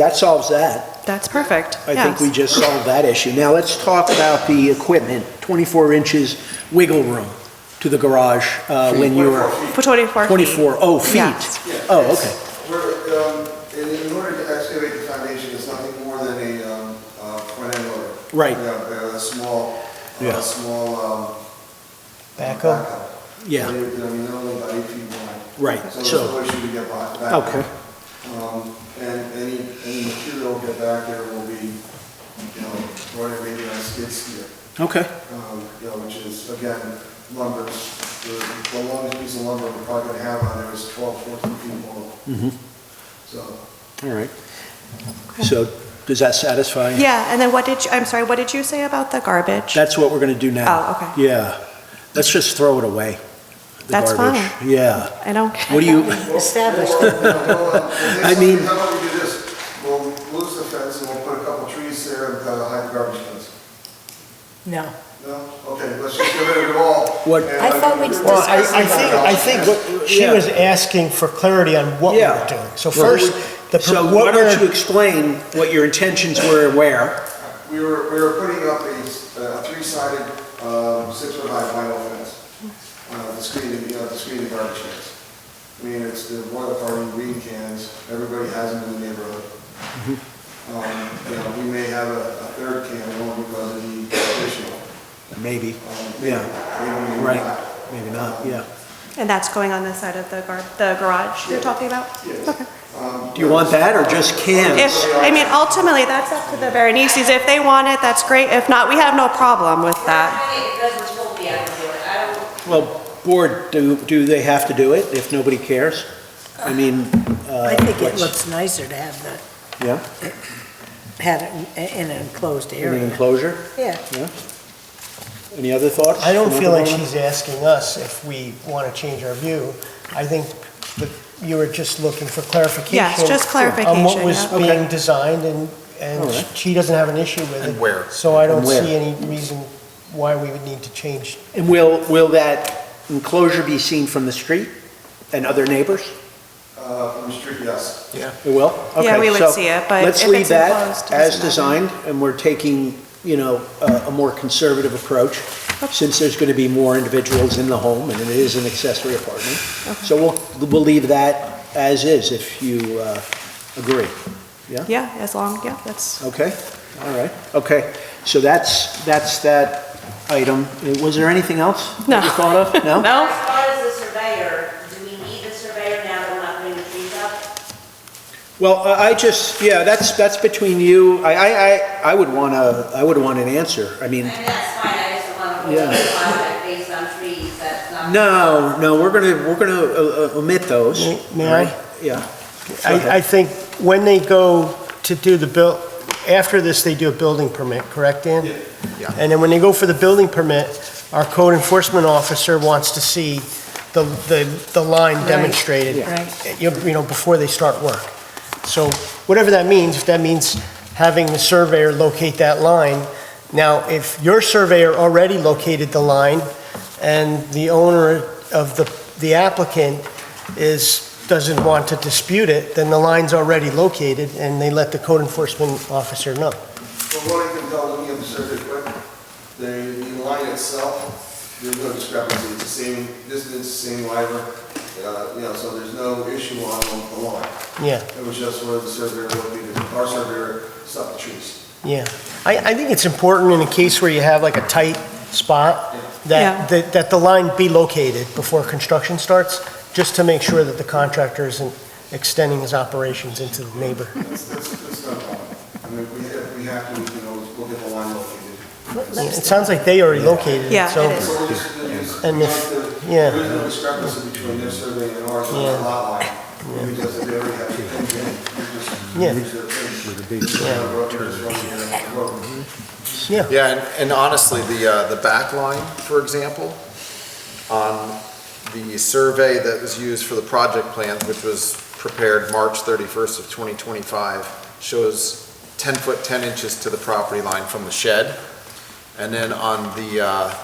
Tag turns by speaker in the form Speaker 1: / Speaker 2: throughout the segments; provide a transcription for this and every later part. Speaker 1: That solves that.
Speaker 2: That's perfect.
Speaker 1: I think
Speaker 2: Yes.
Speaker 1: we just solved that issue. Now, let's talk about the equipment, 24 inches wiggle room to the garage uh, when you were
Speaker 2: For 24 feet.
Speaker 1: 24, oh, feet.
Speaker 2: Yes.
Speaker 1: Oh, okay.
Speaker 3: We're, um, in in order to excavate the foundation, it's nothing more than a, um, uh, front end loader.
Speaker 1: Right.
Speaker 3: Yeah, A small,
Speaker 1: Yeah.
Speaker 3: a small, um.
Speaker 4: Backhoe?
Speaker 3: I
Speaker 1: Yeah,
Speaker 3: mean, they're only about eight feet wide.
Speaker 1: Right,
Speaker 3: So
Speaker 1: so-
Speaker 3: there's no issue to get by. back.
Speaker 1: okay.
Speaker 3: Um, and any, any material get back there will be, you know, running maybe on skid steer.
Speaker 1: Okay,
Speaker 3: um, you know, which is, again, lumber, the the longest piece of lumber we're probably gonna have on there is 12, 14 feet long.
Speaker 4: Mm-hmm.
Speaker 3: So,
Speaker 1: all right. So does that satisfy?
Speaker 2: Yeah, and then what did you, I'm sorry, what did you say about the garbage?
Speaker 1: That's what we're going to do now.
Speaker 2: Oh, okay.
Speaker 1: Yeah. Let's just throw it away. the
Speaker 2: That's
Speaker 1: garbage. Yeah.
Speaker 2: I don't.
Speaker 1: What do you,
Speaker 4: Established.
Speaker 3: Well, you know, well, uh, the
Speaker 1: I
Speaker 3: next-
Speaker 1: mean-
Speaker 3: How about we do this? We'll lose the fence and we'll put a couple trees there and uh, hide the garbage cans.
Speaker 4: No.
Speaker 3: No? Okay, let's just get rid of it all.
Speaker 1: What-
Speaker 3: And,
Speaker 5: I
Speaker 3: uh,
Speaker 5: thought we
Speaker 3: get rid of
Speaker 4: Well, I,
Speaker 3: the
Speaker 4: I think, I think what she
Speaker 1: Yeah.
Speaker 4: was asking for clarity on what we
Speaker 1: Yeah.
Speaker 4: were doing. So
Speaker 1: Well,
Speaker 4: first, the,
Speaker 1: so
Speaker 4: pro-
Speaker 1: why
Speaker 4: what
Speaker 1: don't you
Speaker 4: we're,
Speaker 1: explain what your intentions were and where?
Speaker 3: We were, we were putting up a, s- a three-sided, um, six-foot high vinyl fence, uh, the screen, you know, the screen of garbage cans. I mean, it's the water party, green cans, everybody has them in the neighborhood. Um, you know, we may have a, a third can, only because of the additional.
Speaker 1: Maybe.
Speaker 3: um, maybe-
Speaker 1: Yeah,
Speaker 3: maybe we
Speaker 1: right.
Speaker 3: not.
Speaker 1: Maybe not, yeah.
Speaker 2: And that's going on the side of the gar, the garage you're
Speaker 3: Yeah.
Speaker 2: talking about?
Speaker 3: Yes.
Speaker 2: Okay.
Speaker 3: Um,
Speaker 1: Do you want that or just cans?
Speaker 2: If, I mean, ultimately, that's up to the Veronese's. If they want it, that's great. If not, we have no problem with that.
Speaker 5: Doesn't hold me out of it. I don't,
Speaker 1: Well, board, do, do they have to do it if nobody cares? I mean, uh,
Speaker 6: I think it
Speaker 1: what's-
Speaker 6: looks nicer to have the,
Speaker 1: Yeah,
Speaker 6: have it in in an enclosed
Speaker 1: in the
Speaker 6: area.
Speaker 1: enclosure?
Speaker 6: Yeah.
Speaker 1: Any other thoughts?
Speaker 4: I don't
Speaker 1: from
Speaker 4: feel like
Speaker 1: everyone?
Speaker 4: she's asking us if we want to change our view. I think that you were just looking for clarification.
Speaker 2: Yes, just
Speaker 4: On what
Speaker 2: clarification,
Speaker 4: was
Speaker 2: yeah.
Speaker 4: being designed and,
Speaker 1: All
Speaker 4: and
Speaker 1: right.
Speaker 4: she doesn't have an issue with it.
Speaker 7: And where.
Speaker 4: So I don't
Speaker 1: And where.
Speaker 4: see any reason why we would need to change.
Speaker 1: And will, will that enclosure be seen from the street and other neighbors?
Speaker 3: Uh, from the street, yes.
Speaker 1: It will?
Speaker 2: Yeah,
Speaker 1: Okay,
Speaker 2: we would
Speaker 1: so
Speaker 2: see it, but if
Speaker 1: Let's leave
Speaker 2: it's
Speaker 1: that
Speaker 2: enclosed, it
Speaker 1: as
Speaker 2: doesn't
Speaker 1: designed, and we're taking, you know, uh, a a more conservative approach, since there's going to be more individuals in the home, and it is an accessory apartment. So we'll, we'll leave that as is, if you uh, agree.
Speaker 2: Yeah, as long, yeah, that's,
Speaker 1: Okay? All right, okay. So that's, that's that item. Uh, Was there anything else that you
Speaker 2: No.
Speaker 1: thought of? No?
Speaker 2: no?
Speaker 5: as far as the surveyor, do we need the surveyor now that we're not putting the trees up?
Speaker 1: Well, I I just, yeah, that's, that's between you. I, I, I- I would want to, I would want an answer. I
Speaker 5: I
Speaker 1: mean,
Speaker 5: mean, that's fine, I just don't want to
Speaker 1: Yeah.
Speaker 5: put a project based on trees, that's not.
Speaker 1: No, no, we're gonna, we're gonna uh, uh, omit those.
Speaker 4: May- may I?
Speaker 1: Yeah.
Speaker 4: I, I think when they go to do the bill, after this, they do a building permit, correct, Dan?
Speaker 7: Yeah.
Speaker 4: And then when they go for the building permit, our code enforcement officer wants to see the, the, the line demonstrated.
Speaker 6: right.
Speaker 4: You you know, before they start work. So whatever that means, if that means having the surveyor locate that line. Now, if your surveyor already located the line and the owner of the, the applicant is, doesn't want to dispute it, then the line's already located and they let the code enforcement officer know.
Speaker 3: From what I can tell, looking at the circuit quick, the, the line itself, there's no discrepancy, it's the same distance, same wire, uh, you know, so there's no issue on the line.
Speaker 4: Yeah,
Speaker 3: It was just where the surveyor located, our surveyor stopped the trees.
Speaker 4: yeah. I, I think it's important in a case where you have like a tight spot,
Speaker 2: Yeah.
Speaker 4: that, that, that the line be located before construction starts, just to make sure that the contractor isn't extending his operations into the neighbor.
Speaker 3: That's, that's, that's not a problem. I mean, if we, if we have to, you know, we'll get the line located.
Speaker 4: It sounds like they already located it,
Speaker 2: Yeah,
Speaker 4: so.
Speaker 2: it is.
Speaker 3: So we'll just, we'll just-
Speaker 4: And if- yeah.
Speaker 3: There's no discrepancy between their survey and ours on
Speaker 4: Yeah.
Speaker 3: the lot line. We just, they already have to come in, we just
Speaker 4: Yeah.
Speaker 3: use their fence. Uh, we're just running here, we're-
Speaker 7: Yeah, and- and honestly, the, uh, the back line, for example, on the survey that was used for the project plan, which was prepared March 31st of 2025, shows 10 foot 10 inches to the property line from the shed. And then on the, uh,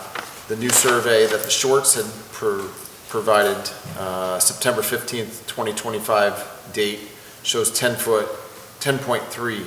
Speaker 7: the new survey that the Shorts had pro- provided, uh, September 15th, 2025 date, shows 10 foot 10.3